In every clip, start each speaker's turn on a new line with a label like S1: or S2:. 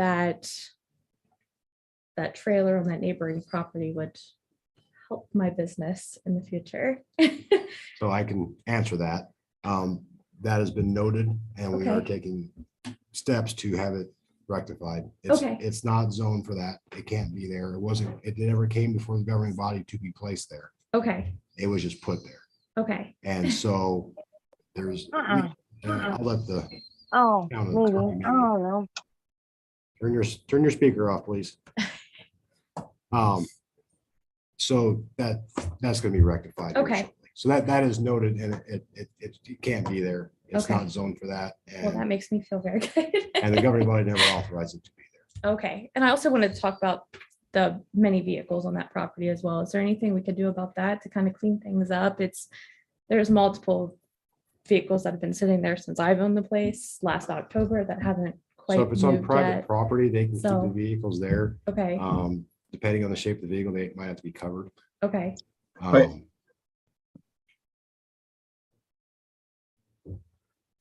S1: that that trailer on that neighboring property would help my business in the future.
S2: So I can answer that. Um, that has been noted and we are
S1: Okay.
S2: taking steps to have it rectified. It's,
S1: Okay.
S2: it's not zoned for that. It can't be there. It wasn't, it never came before the governing body to be placed there.
S1: Okay,
S2: It was just put there.
S1: okay,
S2: And so there's, uh,
S3: Uh-uh.
S2: I'll let the,
S3: Oh,
S2: Down in the
S3: maybe. I
S2: corner, maybe.
S3: don't know.
S2: turn your, turn your speaker off, please. Um, so that, that's gonna be rectified. here
S1: Okay.
S2: shortly. So that, that is noted and it, it, it it can't be there. It's
S1: Okay.
S2: not zoned for that.
S1: well,
S2: and-
S1: that makes me feel very good.
S2: And the governing body never authorized it to be there.
S1: Okay, and I also wanted to talk about the many vehicles on that property as well. Is there anything we could do about that to kind of clean things up? It's, there's multiple vehicles that have been sitting there since I've owned the place last October that haven't quite
S2: So if it's on
S1: moved
S2: private
S1: yet.
S2: property, they can keep the
S1: So-
S2: vehicles there.
S1: Okay,
S2: Um, depending on the shape of the vehicle, they might have to be covered.
S1: okay,
S4: Right.
S2: Um,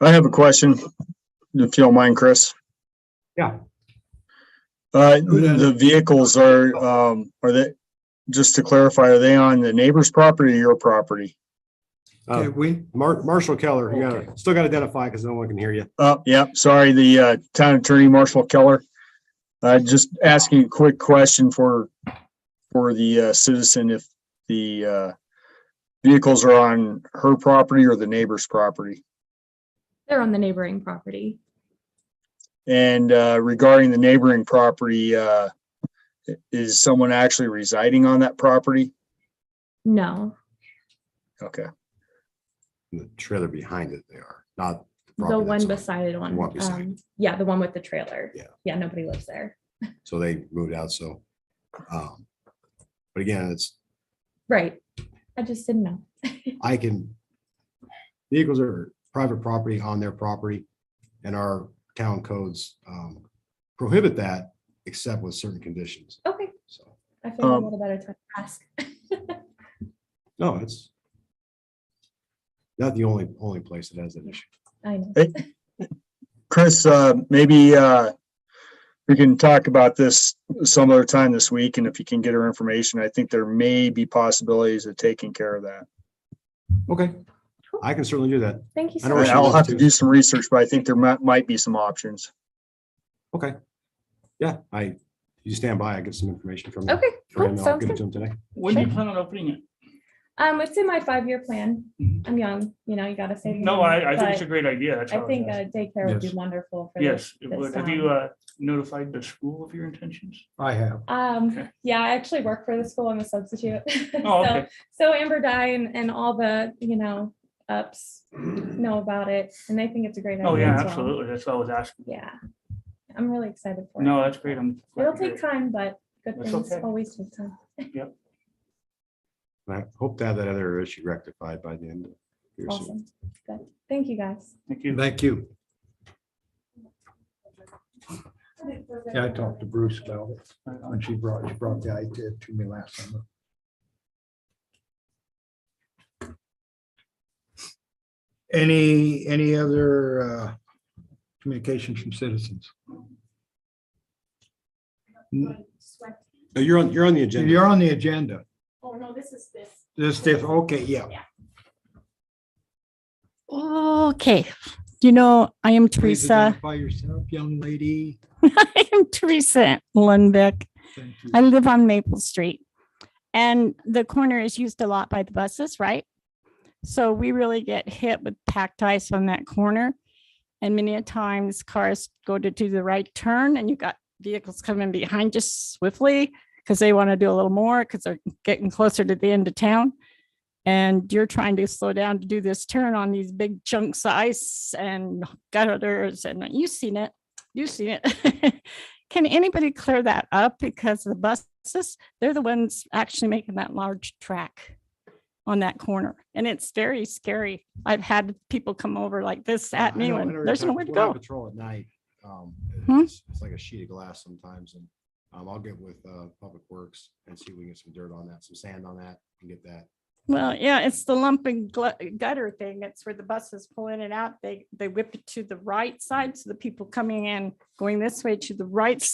S4: I have a question, if you don't mind, Chris.
S2: Yeah.
S4: Uh, the vehicles are, um, are they, just to clarify, are they on the neighbor's property or your property?
S2: uh,
S5: Okay, we,
S2: Mar- Marshall Keller, you gotta,
S5: Okay.
S2: still gotta identify because no one can hear you.
S4: Oh, yeah, sorry, the, uh, town attorney, Marshall Keller. Uh, just asking a quick question for, for the, uh, citizen, if the, uh, vehicles are on her property or the neighbor's property?
S1: they're on the neighboring property.
S4: And uh, regarding the neighboring property, uh, is someone actually residing on that property?
S1: No,
S4: Okay,
S2: The trailer behind it, they are not.
S1: the
S2: property
S1: one
S2: that's on
S1: beside it one.
S2: one beside
S1: um, Yeah, the one with the trailer.
S2: Yeah.
S1: Yeah, nobody lives there.
S2: it. So they moved out, so. um, But again, it's,
S1: Right. I just didn't know.
S2: I can, vehicles are private property on their property and our town codes um, prohibit that except with certain conditions.
S1: Okay,
S2: So,
S1: I feel a
S4: Um,
S1: little better to ask.
S2: no, it's not the only, only place that has an issue.
S1: I know.
S4: Chris, uh, maybe uh, we can talk about this some other time this week, and if you can get her information, I think there may be possibilities of taking care of that.
S2: Okay, I can certainly do that.
S1: Thank you
S2: I
S1: so
S2: know where
S1: much.
S2: she
S4: I'll
S2: lives,
S4: have to
S2: too.
S4: do some research, but I think there might, might be some options.
S2: Okay. Yeah, I, you stand by, I get some information from.
S1: Okay,
S2: for him,
S1: cool,
S2: and I'll
S1: sounds
S2: give it
S1: good.
S2: to him today.
S6: When do you plan on opening it?
S1: Um, it's in my five-year plan.
S6: Mhm.
S1: I'm young, you know, you gotta save.
S6: No,
S1: money,
S6: I, I think it's a
S1: but
S6: great idea. That's
S1: I
S6: all
S1: think
S6: was
S1: uh,
S6: asking.
S1: daycare would be
S5: Yes.
S1: wonderful for this.
S6: Yes, it would. Have
S1: um,
S6: you, uh, notified the school of your intentions?
S5: I have.
S1: Um,
S6: okay.
S1: yeah, I actually work for the school. I'm a substitute. So-
S6: Oh, okay.
S1: So Amber Dye and, and all the, you know, ups know about it and they think it's a great idea.
S6: Oh, yeah,
S1: as well.
S6: absolutely. That's all I was asking.
S1: Yeah, I'm really excited for it.
S6: No, that's great. I'm. glad
S1: It'll
S6: to hear
S1: take
S6: it.
S1: time, but good
S6: That's
S1: things
S6: okay.
S1: always take time.
S2: And I hope to have that other issue rectified by the end. of here soon.
S1: Awesome. Good. Thank you, guys.
S6: Thank you.
S5: Thank you. Yeah, I talked to Bruce about it
S6: Right on.
S5: when she brought, she brought the idea to me last summer. Any, any other uh, communications from citizens? N-
S2: No, You're on, you're on the agenda.
S5: You're on the agenda.
S1: Oh, no, this is this.
S5: This, this, okay, yeah.
S7: Okay, you know, I am
S5: Please
S7: Teresa.
S5: identify yourself, young lady.
S7: I am Teresa Lundbeck.
S5: Thank you.
S7: I live on Maple Street. And the corner is used a lot by the buses, right? So we really get hit with packed ice on that corner. And many a times cars go to do the right turn and you got vehicles coming behind you swiftly because they want to do a little more because they're getting closer to the end of town. And you're trying to slow down to do this turn on these big chunks of ice and gutters and you've seen it. You've seen it. Can anybody clear that up? Because the buses, they're the ones actually making that large track on that corner. And it's very scary. I've had people come over like this
S2: Yeah,
S7: at
S2: I
S7: me
S2: know- I know
S7: when
S2: you're
S7: there's
S2: talking-
S7: nowhere to
S2: when I
S7: go.
S2: Patrol at night. um,
S7: Hmm?
S2: It's it's like a sheet of glass sometimes and um, I'll get with uh, Public Works and see if we can get some dirt on that, some sand on that and get that.
S7: Well, yeah, it's the lumping glu- gutter thing. It's where the buses pull in and out. They, they whip it to the right side. So the people coming in, going this way to the right